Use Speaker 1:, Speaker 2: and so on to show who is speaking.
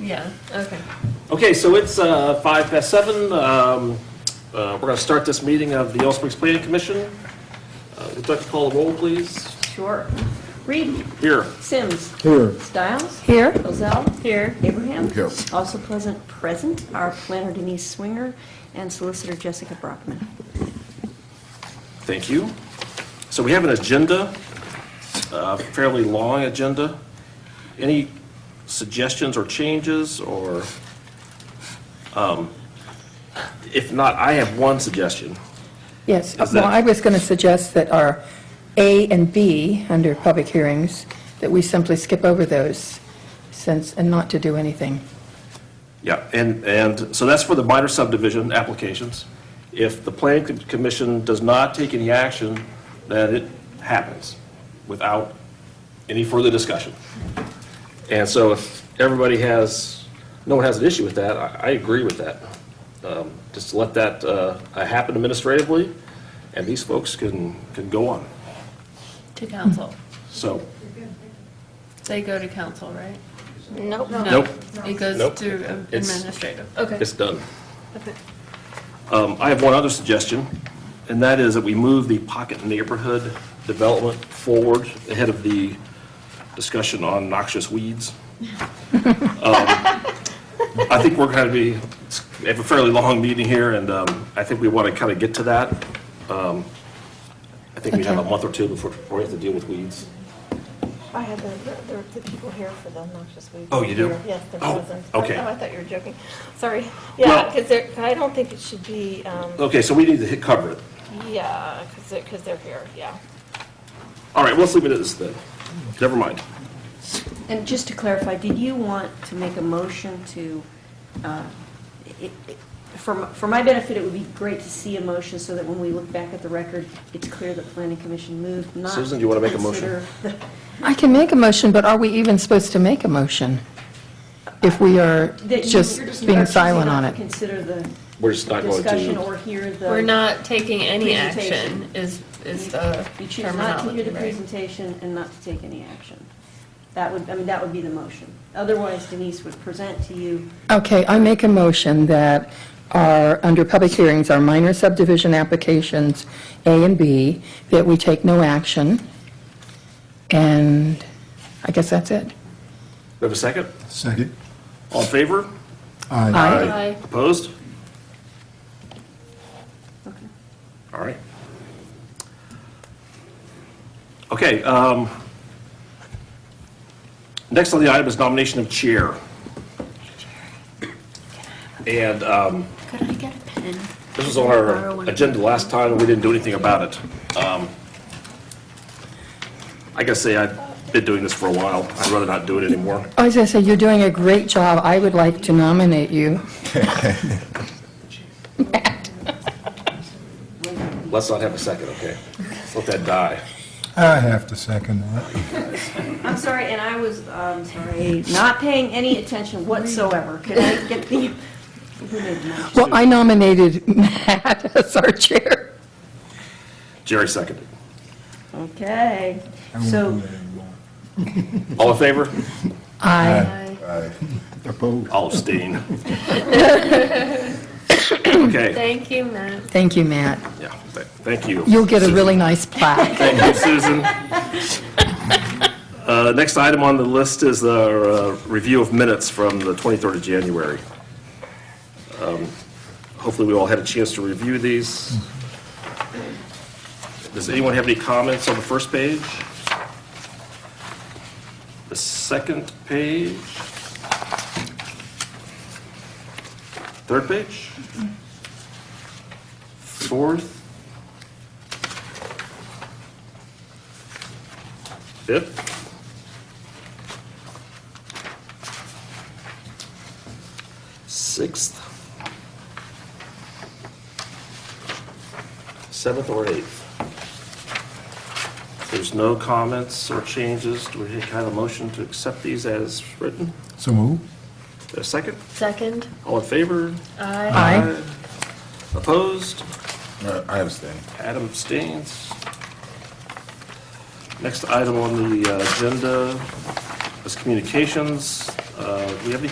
Speaker 1: Yeah, okay.
Speaker 2: Okay, so it's uh, five past seven. Um, uh, We're going to start this meeting of the Yellow Springs Planning Commission. Uh, Would you like to call the roll, please?
Speaker 1: Sure. Reed,
Speaker 2: Here.
Speaker 1: Sims,
Speaker 3: Here.
Speaker 1: Stiles. Here. Ozell. Here. Abraham.
Speaker 3: Here.
Speaker 1: Also present, present are planner Denise Swinger and solicitor Jessica Brockman.
Speaker 2: Thank you. So we have an agenda, a fairly long agenda. Any suggestions or changes, or, um, if not, I have one suggestion.
Speaker 4: Yes,
Speaker 2: Is
Speaker 4: well,
Speaker 2: that-
Speaker 4: I was going to suggest that our A and B, under public hearings, that we simply skip over those since, and not to do anything.
Speaker 2: Yeah, and, and, so that's for the minor subdivision applications. If the planning Com- commission does not take any action, then it happens without any further discussion. And so if everybody has, no one has an issue with that, I, I agree with that. Um, Just to let that uh, happen administratively, and these folks can, can go on.
Speaker 5: To council.
Speaker 2: So,
Speaker 5: They go to council, right?
Speaker 1: Nope.
Speaker 5: No,
Speaker 2: Nope. Nope.
Speaker 5: It goes through
Speaker 2: It's-
Speaker 5: administrative. Okay.
Speaker 2: It's done. Um, I have one other suggestion, and that is that we move the pocket neighborhood development forward ahead of the discussion on noxious weeds. Um, I think we're going to be, we have a fairly long meeting here, and um, I think we want to kind of get to that. Um, I think we have a
Speaker 4: Okay.
Speaker 2: month or two before before we have to deal with weeds.
Speaker 6: I had the, the, the people here for the noxious weeds.
Speaker 2: Oh, you do?
Speaker 6: Here, Yes, there
Speaker 2: Oh,
Speaker 6: wasn't.
Speaker 2: okay.
Speaker 6: Oh, I thought you were joking. Sorry.
Speaker 2: Well-
Speaker 6: Yeah, because they're, I don't think it should be, um,
Speaker 2: Okay, so we need to hit cover it.
Speaker 6: yeah, because they're, because they're here, yeah.
Speaker 2: All right, let's leave it at this then. Never mind.
Speaker 1: And just to clarify, did you want to make a motion to, uh, it- it- for m- for my benefit, it would be great to see a motion so that when we look back at the record, it's clear that planning commission moved, not
Speaker 2: Susan, do you wanna make a motion?
Speaker 1: consider the-
Speaker 4: I can make a motion, but are we even supposed to make a motion if we are
Speaker 1: that you-
Speaker 4: just
Speaker 1: you're you're
Speaker 4: being
Speaker 1: choosing
Speaker 4: silent
Speaker 1: not
Speaker 4: on
Speaker 1: to
Speaker 4: it?
Speaker 1: Consider the
Speaker 2: We're just not going to-
Speaker 1: discussion or hear the.
Speaker 5: We're not taking any
Speaker 1: Presentation.
Speaker 5: action is, is the
Speaker 1: You choose not to hear
Speaker 5: terminology,
Speaker 1: the
Speaker 5: right?
Speaker 1: presentation and not to take any action. That would, I mean, that would be the motion. Otherwise Denise would present to you
Speaker 4: Okay, I make a motion that our, under public hearings, our minor subdivision applications, A and B, that we take no action, and I guess that's it.
Speaker 2: We have a second?
Speaker 3: Second.
Speaker 2: All in favor?
Speaker 3: Aye.
Speaker 4: Aye.
Speaker 5: Aye.
Speaker 2: Opposed? All right. Okay, um, next on the item is nomination of chair. And, um,
Speaker 5: Could I get a pen?
Speaker 2: this was on our agenda last time, and we didn't do anything about it. Um, I gotta say, I've been doing this for a while. I'd rather not do it anymore.
Speaker 4: I was going to say, you're doing a great job. I would like to nominate you.
Speaker 2: Let's not have a second, okay? Let that die.
Speaker 3: I have to second that.
Speaker 1: I'm sorry, and I was, um sorry, not paying any attention whatsoever. Could I get the, who made the motion?
Speaker 4: Well, I nominated Matt as our chair.
Speaker 2: Jerry seconded.
Speaker 1: Okay,
Speaker 3: I won't
Speaker 1: so,
Speaker 3: do that anymore.
Speaker 2: All in favor?
Speaker 4: I,
Speaker 3: Opposed.
Speaker 2: All abstain. Okay,
Speaker 5: Thank you, Matt.
Speaker 4: thank you, Matt.
Speaker 2: yeah, th- thank you.
Speaker 4: You'll get a really nice plaque.
Speaker 2: Thank you, Susan. Uh, Next item on the list is the uh, review of minutes from the 23rd of January. Um, Hopefully, we all had a chance to review these. Does anyone have any comments on the first page? The second page? Third page? Fourth? Fifth? Sixth? Seventh or eighth? If There's no comments or changes. Do we have a motion to accept these as written?
Speaker 3: So move.
Speaker 2: A second?
Speaker 5: Second?
Speaker 2: All in favor?
Speaker 5: Aye.
Speaker 4: Aye.
Speaker 2: Opposed?
Speaker 7: Uh, I abstain.
Speaker 2: Adam abstains. Next item on the uh, agenda is communications. Uh, Do we have any